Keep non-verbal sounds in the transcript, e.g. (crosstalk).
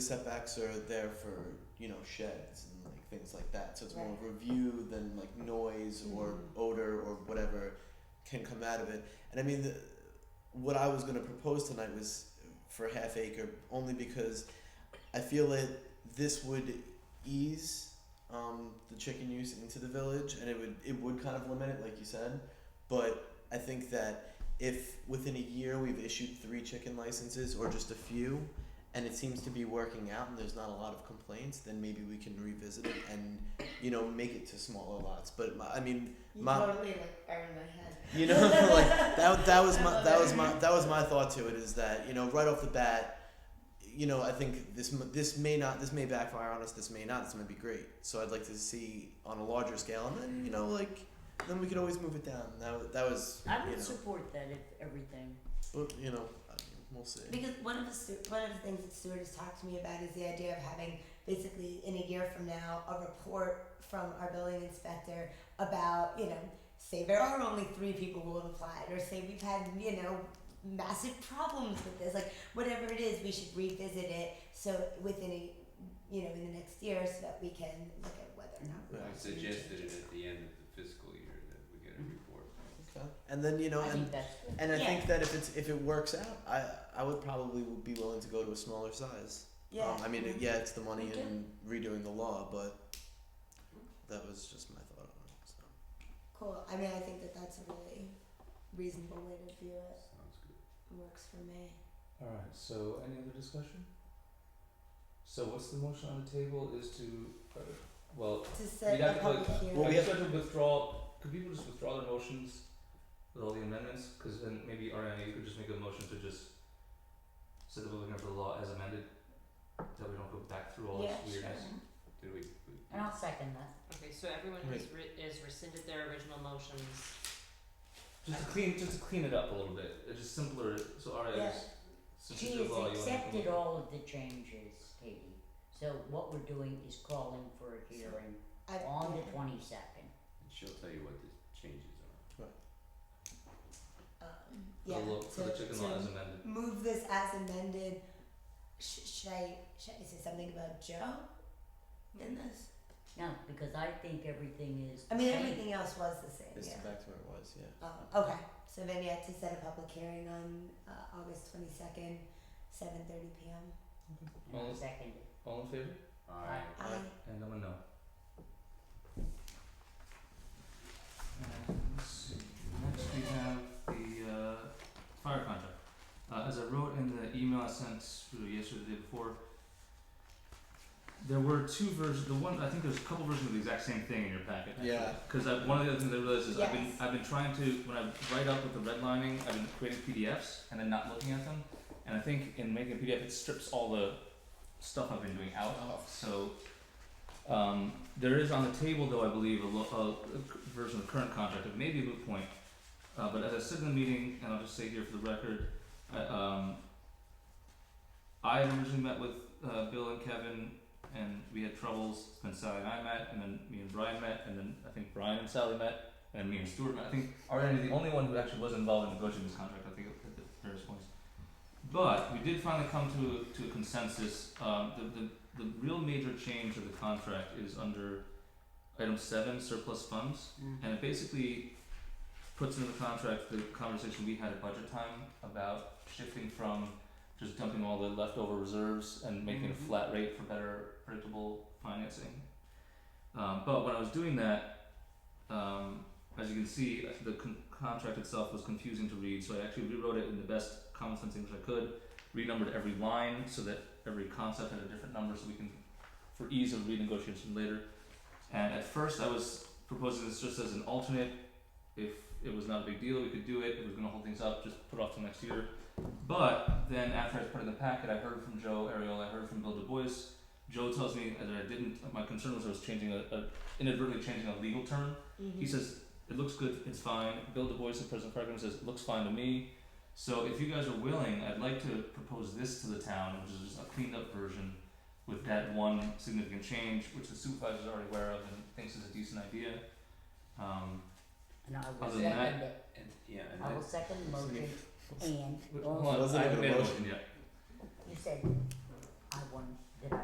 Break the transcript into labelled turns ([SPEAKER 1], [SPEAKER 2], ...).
[SPEAKER 1] setbacks are there for you know sheds and like things like that. So it's more of review than like noise or
[SPEAKER 2] Mhm.
[SPEAKER 1] odor or whatever can come out of it. And I mean, the, what I was going to propose tonight was for half acre only because I feel that this would ease um, the chicken use into the village and it would it would kind of limit it, like you said. But I think that if within a year we've issued three chicken licenses or just a few, and it seems to be working out and there's not a lot of complaints, then maybe we can revisit it and, you know, make it to smaller lots. But my, I mean,
[SPEAKER 2] You
[SPEAKER 1] Ma-
[SPEAKER 2] totally like burned my head.
[SPEAKER 1] you know, (laughs) like that, that was
[SPEAKER 2] I
[SPEAKER 1] my
[SPEAKER 2] love
[SPEAKER 1] that
[SPEAKER 2] it.
[SPEAKER 1] was my that was my thought to it is that you know right off the bat, you know I think this m- this may not this may backfire on us. This may not. This might be great. So I'd like to see on a larger scale, and then you know like then we could always move it down. That wa- that was
[SPEAKER 3] I
[SPEAKER 1] you
[SPEAKER 3] would
[SPEAKER 1] know,
[SPEAKER 3] support that if everything.
[SPEAKER 1] but you know I mean, we'll see.
[SPEAKER 4] (laughs) Because one of the stu- one of the things that Stuart has talked to me about is the idea of having basically in a year from now a report from our building inspector about you know say there are only three people who have applied or say we've had you know massive problems with this like whatever it is we should revisit it so within a you know in the next year so that we can look at whether or not we
[SPEAKER 1] Right.
[SPEAKER 4] want
[SPEAKER 5] I
[SPEAKER 4] to change
[SPEAKER 5] suggested
[SPEAKER 4] it.
[SPEAKER 5] it at the end of the fiscal year that we get a
[SPEAKER 6] Mm-hmm.
[SPEAKER 5] report.
[SPEAKER 1] Okay. And then you know
[SPEAKER 3] I
[SPEAKER 1] and
[SPEAKER 3] think that's good.
[SPEAKER 1] and I
[SPEAKER 4] Yeah.
[SPEAKER 1] think that if it's if it works out, I I would probably be willing to go to a smaller size.
[SPEAKER 4] yeah
[SPEAKER 1] Um, I mean it, yeah, it's the money
[SPEAKER 3] Okay.
[SPEAKER 1] and redoing the law, but that was just my thought on it. So.
[SPEAKER 4] cool I mean I think that that's a really reasonable way to view it
[SPEAKER 5] Sounds good.
[SPEAKER 4] works for me.
[SPEAKER 6] Alright, so any other discussion? So what's the motion on the table is to, uh, well,
[SPEAKER 4] to
[SPEAKER 6] we
[SPEAKER 4] set
[SPEAKER 6] have
[SPEAKER 4] a
[SPEAKER 6] to
[SPEAKER 4] public
[SPEAKER 6] like,
[SPEAKER 4] hearing.
[SPEAKER 1] Well,
[SPEAKER 6] I
[SPEAKER 1] we
[SPEAKER 6] just have to withdraw, could people just withdraw their motions with all the amendments? Cause then maybe Ariana, you could just make a motion to just set the public hearing for the law as amended, that we don't go back through all this
[SPEAKER 4] Yeah,
[SPEAKER 6] weirdness.
[SPEAKER 5] Did we?
[SPEAKER 3] And I'll second that.
[SPEAKER 2] Okay, so everyone
[SPEAKER 1] has
[SPEAKER 2] has rescinded their original motions.
[SPEAKER 6] Just to clean, just to clean it up a little bit, it's just simpler, so
[SPEAKER 3] Yeah.
[SPEAKER 6] Ariana, just, since
[SPEAKER 3] She
[SPEAKER 6] it's the law,
[SPEAKER 3] has
[SPEAKER 6] you wanna.
[SPEAKER 3] accepted all of the changes, Katie. So what we're doing is calling for a hearing
[SPEAKER 4] I,
[SPEAKER 3] on the
[SPEAKER 4] yeah.
[SPEAKER 3] twenty second.
[SPEAKER 5] And she'll tell you what the changes are.
[SPEAKER 4] Um,
[SPEAKER 6] For
[SPEAKER 4] yeah.
[SPEAKER 6] the law, for the
[SPEAKER 4] to-
[SPEAKER 6] chicken
[SPEAKER 4] to
[SPEAKER 6] law as amended.
[SPEAKER 4] move this as amended. Sh- should I should I say something about Joe in this?
[SPEAKER 3] No, because I think everything is
[SPEAKER 4] I
[SPEAKER 3] the
[SPEAKER 4] mean,
[SPEAKER 3] same.
[SPEAKER 4] everything else was the same.
[SPEAKER 1] It's
[SPEAKER 4] yeah.
[SPEAKER 1] back to where it was, yeah.
[SPEAKER 4] Um, okay. So then you had to set a public hearing on uh, August twenty second, seven thirty p.m.
[SPEAKER 3] And I'll
[SPEAKER 6] Well-
[SPEAKER 3] second it.
[SPEAKER 6] All in favor?
[SPEAKER 5] I
[SPEAKER 3] Aye.
[SPEAKER 1] Aye.
[SPEAKER 6] And I'm a no. And let's see, next we have the uh fire contract. Uh as I wrote in the email I sent uh, yesterday, the day before, there were two versions, the one, I think there's a couple versions of the exact same thing in your packet actually.
[SPEAKER 1] Yeah.
[SPEAKER 6] Cause I, one of the other things I realized is I've been,
[SPEAKER 4] Yes.
[SPEAKER 6] I've been trying to, when I write up with the redlining, I've been creating PDFs and then not looking at them. And I think in making a PDF, it strips all the stuff I've been doing out.
[SPEAKER 1] Oh.
[SPEAKER 6] So um, there is on the table, though, I believe, a, lo- a, a c- version of the current contract. It may be a moot point, uh, but as I said in the meeting, and I'll just say here for the record, I, um, I had originally met with uh, Bill and Kevin, and we had troubles. Then Sally and I met, and then me and Brian met, and then I think Brian and Sally met, and me and Stuart met. I think Ariana is the only one who actually was involved in negotiating this contract. I think at the various points. But we did finally come to to a consensus. Um, the, the the real major change of the contract is under item seven, surplus funds, and it basically puts into the contract the conversation we had at budget time about shifting from just dumping all the leftover reserves and making it
[SPEAKER 2] Mhm.
[SPEAKER 6] a flat rate for better predictable financing. Um, but when I was doing that, um, as you can see, the con- contract itself was confusing to read, so I actually rewrote it in the best common sense English I could, renumbered every line so that every concept had a different number so we can, for ease of renegotiation later. And at first, I was proposing this just as an alternate. If it was not a big deal, we could do it. If it was going to hold things up, just put off till next year. But then after I put it in the packet, I heard from Joe Ariel, I heard from Bill Du Bois. Joe tells me that I didn't. My concern was I was changing a, a inadvertently changing a legal term.
[SPEAKER 4] mm-hmm.
[SPEAKER 6] He says it looks good, it's fine. Bill Du Bois, the president of Fargo, says it looks fine to me. So if you guys are willing, I'd like to propose this to the town, which is just a cleaned up version with that one significant change, which the supervisor's already aware of and thinks is a decent idea. Um,
[SPEAKER 3] And I will
[SPEAKER 6] Other than that-
[SPEAKER 3] second it.
[SPEAKER 5] And yeah, and
[SPEAKER 3] I will
[SPEAKER 5] then
[SPEAKER 3] second the motion and
[SPEAKER 6] w-
[SPEAKER 3] also
[SPEAKER 6] hold on,
[SPEAKER 1] Wasn't
[SPEAKER 6] I
[SPEAKER 1] even
[SPEAKER 6] haven't
[SPEAKER 1] a
[SPEAKER 6] made a
[SPEAKER 1] motion.
[SPEAKER 6] motion yet.
[SPEAKER 3] you said I want